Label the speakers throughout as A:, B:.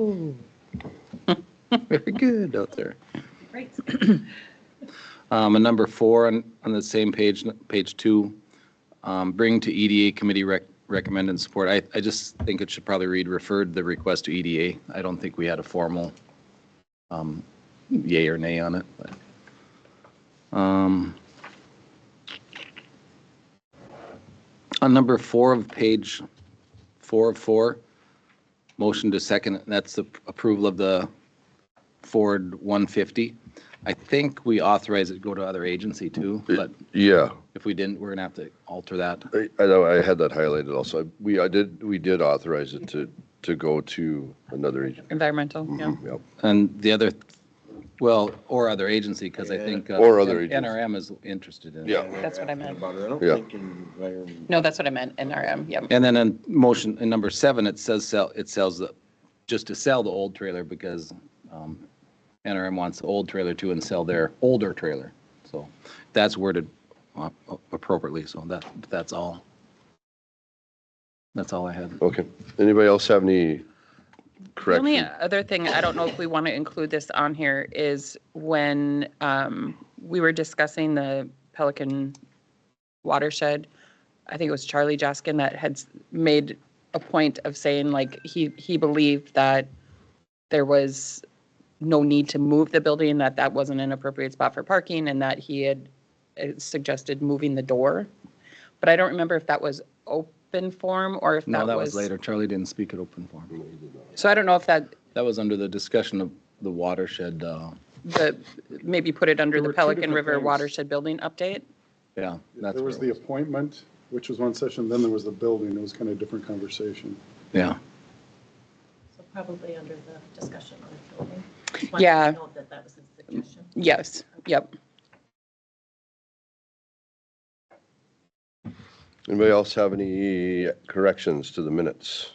A: Ooh. Very good out there.
B: Great.
A: Um, and number four on, on the same page, page two, um, bring to EDA committee rec, recommend and support. I, I just think it should probably read referred the request to EDA. I don't think we had a formal, um, yay or nay on it, but. Um, on number four of page four of four, motion to second, that's the approval of the Ford 150. I think we authorize it to go to other agency too, but
C: Yeah,
A: if we didn't, we're gonna have to alter that.
C: I, I know, I had that highlighted also. We, I did, we did authorize it to, to go to another agent.
B: Environmental, yeah.
C: Mhm, Yep,
A: And the other, well, or other agency, because I think. uh,
C: Or other agency.
A: NRM is interested in it.
C: yeah,
B: That's what I meant.
D: About it. I don't
C: Yeah.
D: think environment.
B: No, that's what I meant, NRM, yep.
A: And then in motion, in number seven, it says sell, it sells the, just to sell the old trailer because um, NRM wants the old trailer too and sell their older trailer. So that's worded uh, appropriately, so that, that's all. That's all I had.
C: okay. Anybody else have any
E: The only
C: correction?
E: other thing, I don't know if we want to include this on here, is when um, we were discussing the Pelican watershed, I think it was Charlie Jaskin that had s- made a point of saying like he, he believed that there was no need to move the building, that that wasn't an appropriate spot for parking, and that he had uh, suggested moving the door. But I don't remember if that was open form or if that was.
A: No, that was later. Charlie didn't speak at open forum.
E: So I don't know if that
A: That was under the discussion of the watershed, uh,
E: the, maybe put it under
F: There
E: the
F: were two
E: Pelican
F: different
E: River
F: things.
E: Watershed Building Update?
A: yeah. that's
F: There was
A: where
F: the
A: it
F: appointment, which was one session, then there was the building, it was kind of a different conversation.
A: Yeah,
B: So probably under the discussion on the building.
E: to Yeah.
B: Note that that was a suggestion.
E: Yes, yep.
C: Anybody else have any corrections to the minutes?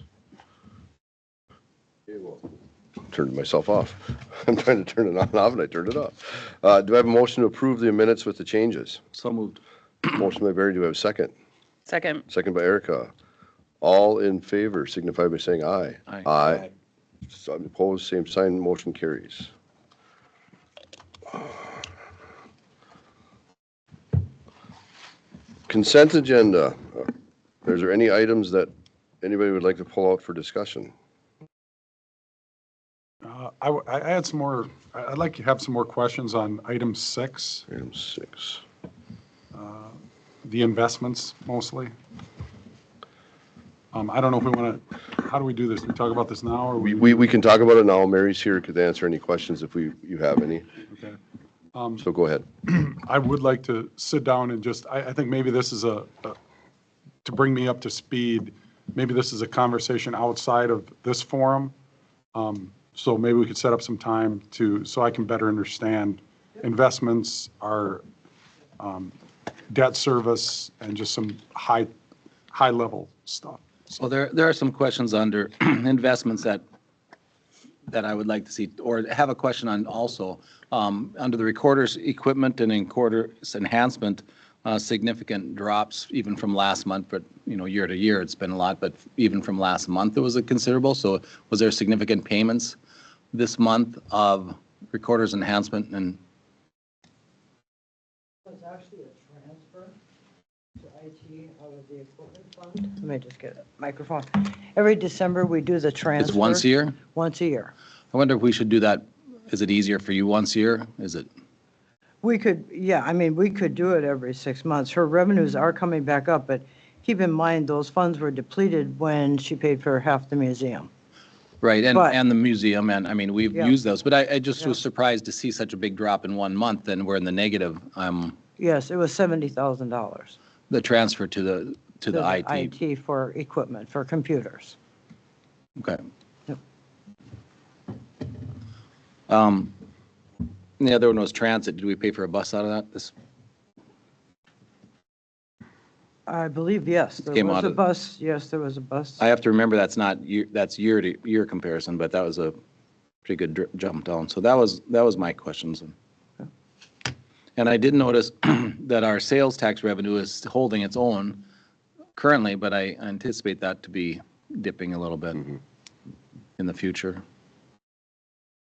C: Turned myself off. I'm trying to turn it on and off and I turned it off. Uh, do I have a motion to approve the minutes with the changes?
A: so moved.
C: Motion by Barry, do I have a second?
E: Second,
C: Second by Erica. All in favor signify by saying aye.
A: Aye.
C: Aye. So Uh, Opposed, same sign, motion carries. Consent agenda. Is there any items that anybody would like to pull out for discussion?
F: Uh, I, w- I I had some more, I- I'd like to have some more questions on item six,
C: Item six.
F: the investments mostly. Um, I don't know if we want to, how do we do this? Do we talk about this now or
C: We,
F: we?
C: we we can talk about it now. Mary's here, could answer any questions if we, you have any.
F: okay. Um,
C: So go ahead.
F: I would like to sit down and just, I, I think maybe this is a, a- to bring me up to speed, maybe this is a conversation outside of this forum. Um, So maybe we could set up some time to, so I can better understand investments, our um, debt service, and just some high, high-level stuff.
A: So there, there are some questions under investments that, that I would like to see, or have a question on also. Um, Under the recorder's equipment and recorder's enhancement, uh, significant drops even from last month, but, you know, year to year, it's been a lot, but even from last month, it was a considerable. So was there significant payments this month of recorder's enhancement and
G: was actually a transfer to IT out of the equipment fund. Let me just get a microphone. Every December, we do the transfer.
A: it's once a year?
G: Once a year.
A: I wonder if we should do that, is it easier for you once a year? Is it?
G: We could, yeah, I mean, we could do it every six months. Her revenues are coming back up, but keep in mind, those funds were depleted when she paid for half the museum.
A: Right, and,
G: But-
A: and the museum, and, I mean, we've
G: Yeah.
A: used those, but I, I just was
G: Yeah.
A: surprised to see such a big drop in one month, and we're in the negative, um,
G: Yes, it was $70,000.
A: the transfer to the, to the IT.
G: IT for equipment, for computers.
A: Okay.
G: Yep.
A: Um, and the other one was transit, did we pay for a bus out of that? This,
G: I believe, yes, there
A: Came
G: was
A: out
G: a
A: of-
G: bus, yes, there was a bus.
A: I have to remember that's not, year- that's year to year comparison, but that was a pretty good dri- jump down. So that was, that was my questions. And I did notice that our sales tax revenue is holding its own currently, but I anticipate that to be dipping a little bit in the future.